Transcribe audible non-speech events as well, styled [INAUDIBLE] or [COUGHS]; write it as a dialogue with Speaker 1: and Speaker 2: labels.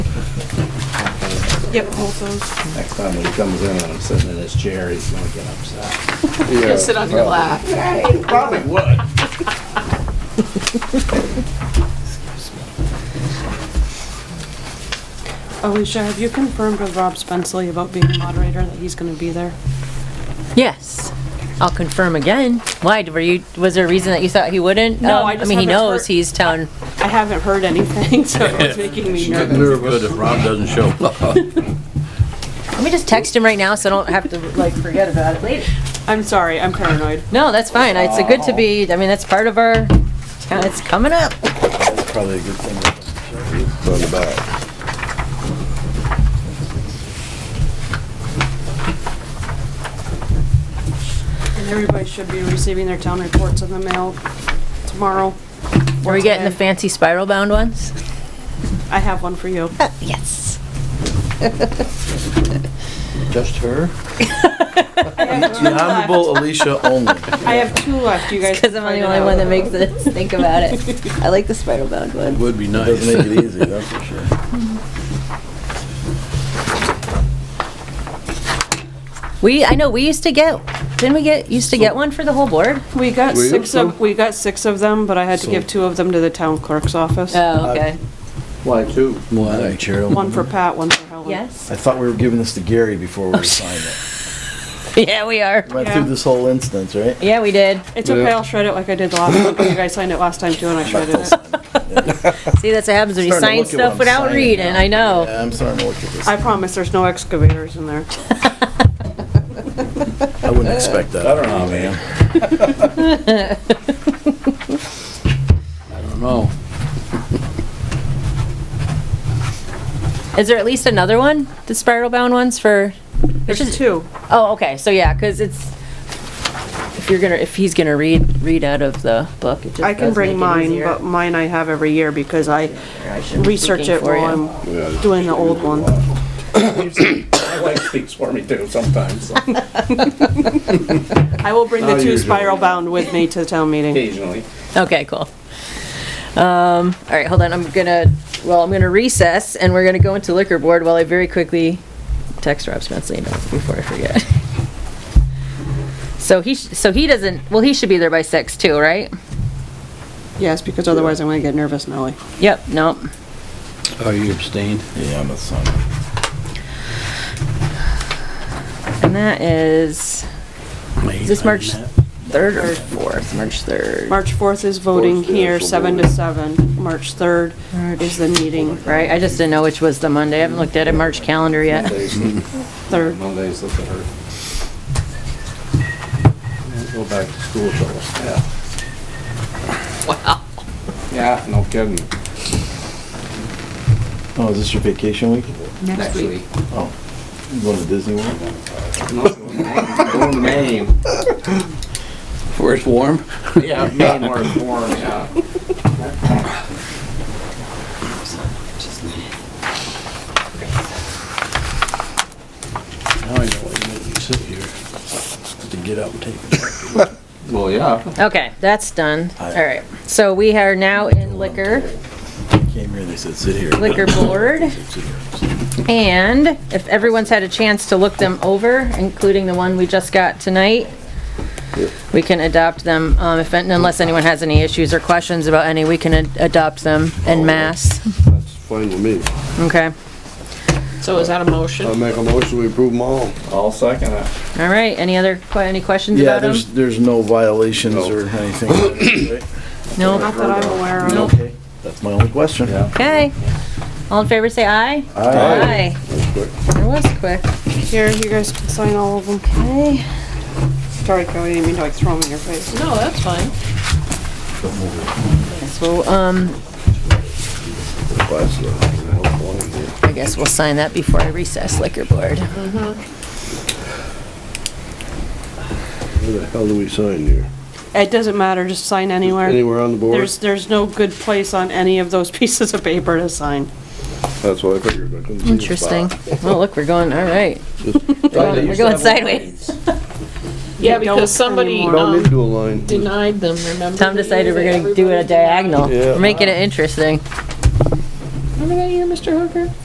Speaker 1: Yep, both those.
Speaker 2: Next time when he comes in and I'm sitting in his chair, he's gonna get upset.
Speaker 1: Gonna sit on your lap.
Speaker 2: Probably would.
Speaker 3: Alicia, have you confirmed with Rob Spenceley about being moderator that he's gonna be there?
Speaker 4: Yes, I'll confirm again. Why, were you, was there a reason that you thought he wouldn't?
Speaker 3: No,
Speaker 4: Um,
Speaker 3: I just
Speaker 4: mean, he
Speaker 3: haven't
Speaker 4: knows
Speaker 3: heard-
Speaker 4: he's town,
Speaker 3: I haven't heard anything, [LAUGHS] so it's making me nervous.
Speaker 5: Good if Rob doesn't show up.
Speaker 4: let me just text him right now so I don't have to like forget about it later.
Speaker 3: I'm sorry, I'm paranoid.
Speaker 4: No, that's fine. It's a good to be, I mean, that's part of our, it's kinda- it's coming up.
Speaker 2: That's probably a good thing. Throw it back.
Speaker 3: And everybody should be receiving their town reports in the mail tomorrow.
Speaker 4: Are we getting the
Speaker 3: today.
Speaker 4: fancy spiral bound ones? [LAUGHS]
Speaker 3: I have one for you.
Speaker 4: Yes.
Speaker 5: Just her? The Honorable Alicia only.
Speaker 3: I have two left, you guys.
Speaker 4: Because I'm
Speaker 3: can find
Speaker 4: the only
Speaker 3: out.
Speaker 4: one that makes us [LAUGHS] think about it. I like the spiral bound one.
Speaker 5: Would be nice.
Speaker 2: Doesn't make it
Speaker 6: [LAUGHS]
Speaker 2: easy, that's for sure.
Speaker 4: We, I know, we used to get, didn't we get, used to get one for the whole board?
Speaker 3: We got
Speaker 5: Will you?
Speaker 3: six of, we got six of them, but I had to give two of them to the town clerk's office.
Speaker 4: Oh, okay.
Speaker 2: Why two?
Speaker 5: Why?
Speaker 3: One for Pat, one for Helen.
Speaker 4: Yes? [LAUGHS]
Speaker 6: I thought we were giving this to Gary before we signed it.
Speaker 4: Yeah, we are.
Speaker 6: Went
Speaker 3: Yeah.
Speaker 6: through this whole instance, right?
Speaker 4: Yeah, we did.
Speaker 3: It's okay, I'll shred it like I did the last time, 'cause you guys signed it last time too, and I shredded it.
Speaker 4: See, that's what happens when you
Speaker 6: Starting to look at
Speaker 4: sign
Speaker 6: what
Speaker 4: stuff
Speaker 6: I'm
Speaker 4: without
Speaker 6: signing
Speaker 4: reading,
Speaker 6: now.
Speaker 4: I know.
Speaker 6: Yeah, I'm starting to look at this.
Speaker 3: I promise, there's no excavators in there.
Speaker 5: I wouldn't expect
Speaker 2: I
Speaker 5: that.
Speaker 2: don't know, man.
Speaker 5: I don't know.
Speaker 4: Is there at least another one? The spiral bound ones for?
Speaker 3: There's
Speaker 4: Which is-
Speaker 3: two.
Speaker 4: Oh, okay, so yeah, because it's, if you're gonna, if he's gonna read, read out of the book, it just
Speaker 3: I can
Speaker 4: does make
Speaker 3: bring
Speaker 4: it
Speaker 3: mine,
Speaker 4: easier.
Speaker 3: but mine I have every year because I
Speaker 4: I should be
Speaker 3: research
Speaker 4: speaking
Speaker 3: it
Speaker 4: for
Speaker 3: while
Speaker 4: you.
Speaker 3: I'm doing the old one.
Speaker 2: [COUGHS] My wife speaks for me too sometimes, so
Speaker 3: I will bring the
Speaker 2: Not
Speaker 3: two
Speaker 2: usually.
Speaker 3: spiral bound with me to the town meeting.
Speaker 2: occasionally.
Speaker 4: Okay, cool. Um, all right, hold on, I'm gonna, well, I'm gonna recess and we're gonna go into liquor board while I very quickly text Rob Spenceley before I forget. [LAUGHS] So he, sh- so he doesn't, well, he should be there by six too, right?
Speaker 3: Yes, because otherwise I'm gonna get nervous, Nellie.
Speaker 4: Yep, nope.
Speaker 5: Are Oh, you abstained?
Speaker 6: Yeah, I'm a son.
Speaker 4: And that is, is this March 3rd or 4th? March 3rd,
Speaker 3: March fourth is voting
Speaker 2: Fourth is
Speaker 3: here,
Speaker 2: the
Speaker 3: seven to
Speaker 2: voting.
Speaker 3: seven. March third is the meeting,
Speaker 4: right? I just didn't know which was the Monday. I haven't looked at a March calendar yet.
Speaker 2: Mondays,
Speaker 3: third.
Speaker 2: Mondays, look at her. Yeah, Go back to school till, yeah. Wow. Yeah, no kidding.
Speaker 6: Oh, is this your vacation week?
Speaker 2: Next week.
Speaker 6: Oh, you going to Disney World?
Speaker 2: [LAUGHS] No, Going to [LAUGHS] Maine.
Speaker 5: Where it's warm?
Speaker 2: Yeah, Maine where it's warm, yeah.
Speaker 5: Now I know why you make me sit here. To get up and take a break.
Speaker 2: Well, yeah.
Speaker 4: Okay, that's done. All
Speaker 6: Aye.
Speaker 4: right, so we are now in liquor,
Speaker 6: Came here, they said, sit here.
Speaker 4: liquor board.
Speaker 6: Sit here.
Speaker 4: And if everyone's had a chance to look them over, including the one we just got tonight, we can adopt them, um, if, unless anyone has any issues or questions about any, we can ad- adopt them en masse.
Speaker 7: Oh, That's fine with me.
Speaker 4: Okay,
Speaker 1: So is that a
Speaker 7: I
Speaker 1: motion?
Speaker 7: make a motion, we approve them all.
Speaker 2: I'll second it.
Speaker 4: all right, any other, que- any questions
Speaker 6: Yeah,
Speaker 4: about them?
Speaker 6: there's, there's no violations or anything. [COUGHS] right?
Speaker 4: No,
Speaker 3: Not that I'm aware of.
Speaker 6: Okay, that's my only question.
Speaker 2: Yeah.
Speaker 4: okay. All in favor, say aye.
Speaker 6: Aye.
Speaker 4: It was quick.
Speaker 3: Here, you guys can sign all of them. Okay. Sorry, Kelly, I didn't mean to like throw them in your face.
Speaker 1: No, that's fine.
Speaker 4: So, um, I guess we'll sign that before I recess liquor board.
Speaker 7: Where the hell do we sign here?
Speaker 3: It doesn't matter, just sign anywhere.
Speaker 7: Anywhere on the board?
Speaker 3: There's, there's no good place on any of those [LAUGHS] pieces of paper to sign.
Speaker 7: That's what I figured. I couldn't see the
Speaker 4: Interesting.
Speaker 7: spot.
Speaker 4: Oh, look, we're going, all right. We're going sideways.
Speaker 1: Yeah,
Speaker 3: They don't
Speaker 1: because somebody
Speaker 3: anymore.
Speaker 7: Don't need to
Speaker 1: um,
Speaker 7: do a line.
Speaker 1: denied them, remember?
Speaker 4: Tom
Speaker 1: the
Speaker 4: decided
Speaker 1: year
Speaker 4: we're
Speaker 1: that
Speaker 4: gonna do it a
Speaker 1: everybody denied-
Speaker 4: diagonal.
Speaker 7: Yeah.
Speaker 4: We're making it interesting.
Speaker 1: Remember that year, Mr. Hooker?